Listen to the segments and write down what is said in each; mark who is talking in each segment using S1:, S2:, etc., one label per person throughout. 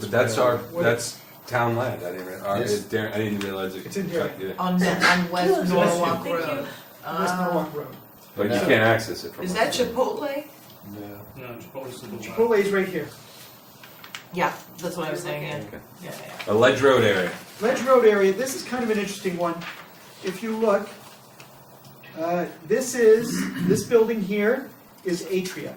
S1: That's our,
S2: What-
S1: that's town land, I didn't, rea- our,
S2: Yes.
S1: it's Darren, I didn't realize it.
S2: It's in Darien.
S1: yeah.
S3: on, on West
S2: Thank you.
S3: Norwalk Road.
S2: West
S3: Uh,
S2: Norwalk Road.
S1: But you
S2: No.
S1: can't access it from.
S3: Is
S1: our-
S3: that Chipotle?
S4: No.
S5: No, Chipotle's the one.
S2: Chipotle's right here.
S3: Yeah, that's what I was saying, yeah.
S1: Okay.
S3: yeah, yeah.
S1: A ledge road area.
S2: Ledge Road area, this is kind of an interesting one. If you look, uh, this is, this building here is Atria.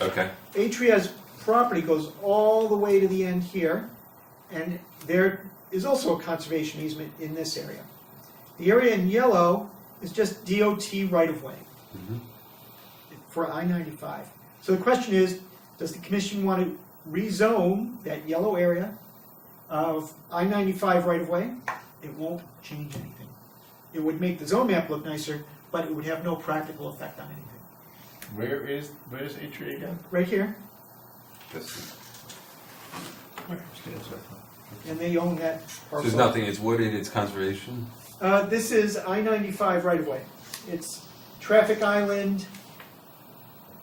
S1: Okay.
S2: Atria's property goes all the way to the end here, and there is also a conservation easement in this area. The area in yellow is just DOT right-of-way
S1: Mhm.
S2: for I-95. So the question is, does the commission want to rezone that yellow area of I-95 right-of-way? It won't change anything. It would make the zone map look nicer, but it would have no practical effect on anything.
S4: Where is where's Atria again?
S2: Right here,
S1: This-
S2: and they own that parcel.
S1: There's nothing, it's wooded, it's conservation.
S2: Uh, this is I ninety-five right away. It's traffic island,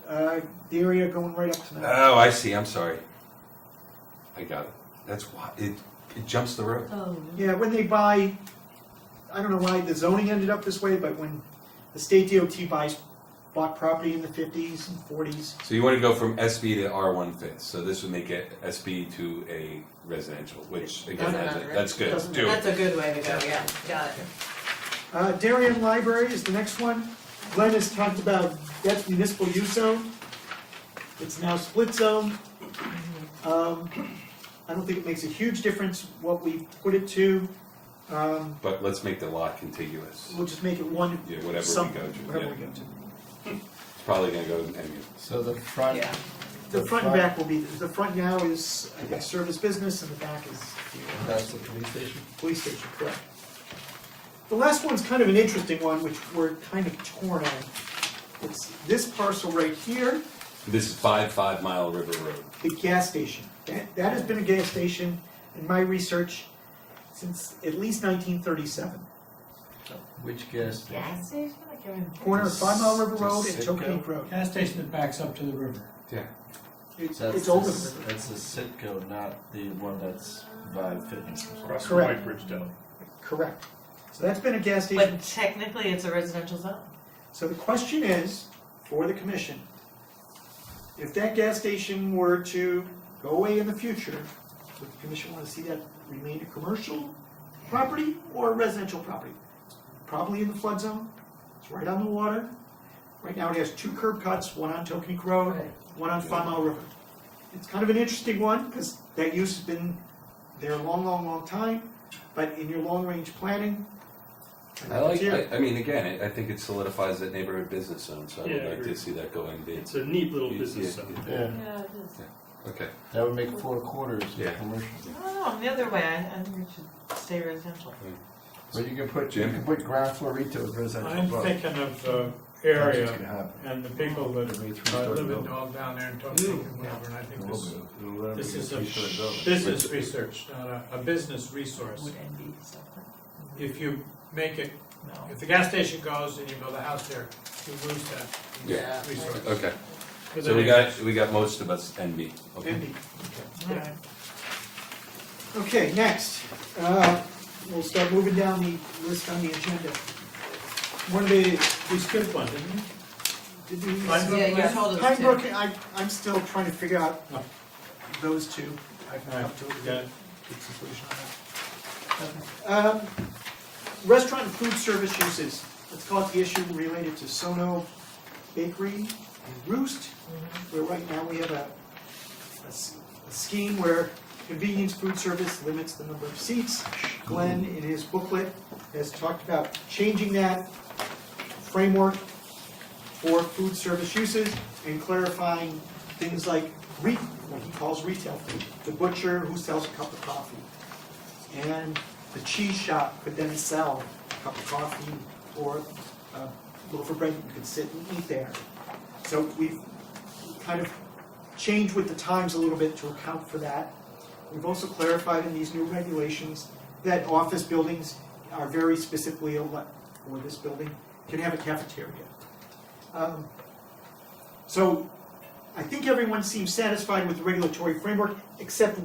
S2: uh, the area going right up to that.
S1: Oh, I see, I'm sorry. I got it. That's why, it, it jumps the road.
S3: Oh.
S2: Yeah, when they buy, I don't know why the zoning ended up this way, but when the state DOT buys, bought property in the fifties and forties,
S1: So you wanna go from SB to R one fifth, so this would make it SB to a residential, which again,
S3: Doesn't
S1: has it.
S3: matter.
S1: that's good,
S2: Doesn't
S1: do it.
S3: That's a good way to go, yeah, got it.
S2: Uh, Darien Library is the next one. Glenn has talked about, that's municipal use zone. It's now split zone. Um, I don't think it makes a huge difference what we put it to. Um,
S1: But let's make the lot contiguous,
S2: we'll just make it one,
S1: yeah, whatever we
S2: some,
S1: go to,
S2: wherever
S1: yeah,
S2: we go to.
S1: it's probably gonna go to MU.
S4: So the front.
S3: Yeah.
S2: The
S4: The
S2: front and
S4: front-
S2: back will be, the front now is, I guess, service business and the back is the
S4: That's the police station.
S2: police station, correct? The last one's kind of an interesting one, which we're kind of torn on. It's this parcel right here.
S1: This is five, five mile river road.
S2: the gas station. That, that has been a gas station in my research since at least nineteen thirty-seven.
S4: Which gas station?
S3: Gas station, I can't remember.
S2: Corner of Five Mile River
S4: Does-
S2: Road and
S4: does
S2: Tokenique
S4: Citgo-
S2: Road.
S5: Gas station that backs up to the river.
S2: It's,
S4: That's
S2: it's older
S4: the-
S2: than the river.
S4: That's the Sitco, not the one that's Vibe Fitness.
S5: Across from
S2: Correct.
S5: White Bridge Deli.
S2: correct. So that's been a gas station.
S3: But technically, it's a residential zone.
S2: So the question is, for the commission, if that gas station were to go away in the future, would the commission wanna see that remain a commercial property or a residential property? Probably in the flood zone, it's right on the water. Right now it has two curb cuts, one on Tokenique Road, one on Five Mile River. It's kind of an interesting one, because that use has been there a long, long, long time, but in your long-range planning,
S1: I like,
S2: Yeah.
S1: I, I mean, again, I, I think it solidifies that neighborhood business zone, so I
S5: Yeah, I
S1: would like
S5: agree.
S1: to see that go MB.
S5: It's a neat little
S1: Yeah,
S5: business
S1: yeah,
S5: zone.
S4: Yeah,
S3: Yeah, it is.
S1: Okay,
S4: that would make four quarters
S1: Yeah.
S4: of commercial.
S3: I don't know, the other way, I, I think it should stay residential.
S4: But you can put, you can put ground floor retail as residential.
S6: I'm
S4: above.
S6: thinking of the
S4: That's what's
S6: area
S4: gonna happen.
S6: and the people that
S4: It'll be a
S6: uh,
S4: three-story
S6: live in
S4: building.
S6: all down there and don't think and whatever, and I
S4: It
S6: think
S4: will
S6: this,
S4: be. It'll let it
S6: this
S4: be a
S6: is a
S4: three-story building.
S6: business research, not a, a business resource.
S3: Would NB stuff like,
S6: If you make it,
S3: no.
S6: if the gas station goes and you build a house there, you lose that
S1: Yeah.
S6: resource.
S1: okay,
S6: But
S1: so we
S6: then-
S1: got, we got most of us NB, okay?
S2: NB.
S3: All right.
S2: Okay, next, uh, we'll start moving down the list on the agenda. One of the,
S6: We skipped one, didn't we?
S2: did we?
S6: Pine Brook
S3: Yeah, you
S6: left?
S3: told us
S2: Pinebrook,
S3: to.
S2: I, I'm still trying to figure out
S6: No.
S2: those two. I've
S6: All
S2: not
S6: right,
S2: come to a
S6: we got it.
S2: good conclusion on that. Um, Restaurant and food service uses, let's call it the issue related to Sono Bakery and Roost, where right now we have a, a s- a scheme where convenience food service limits the number of seats. Glenn, in his booklet, has talked about changing that framework for food service uses and clarifying things like re, what he calls retail food. The butcher who sells a cup of coffee. And the cheese shop could then sell a cup of coffee or a loaf of bread that you could sit and eat there. So we've kind of changed with the times a little bit to account for that. We've also clarified in these new regulations that office buildings are very specifically, ele- or this building, can have a cafeteria. Um, So I think everyone seems satisfied with the regulatory framework, except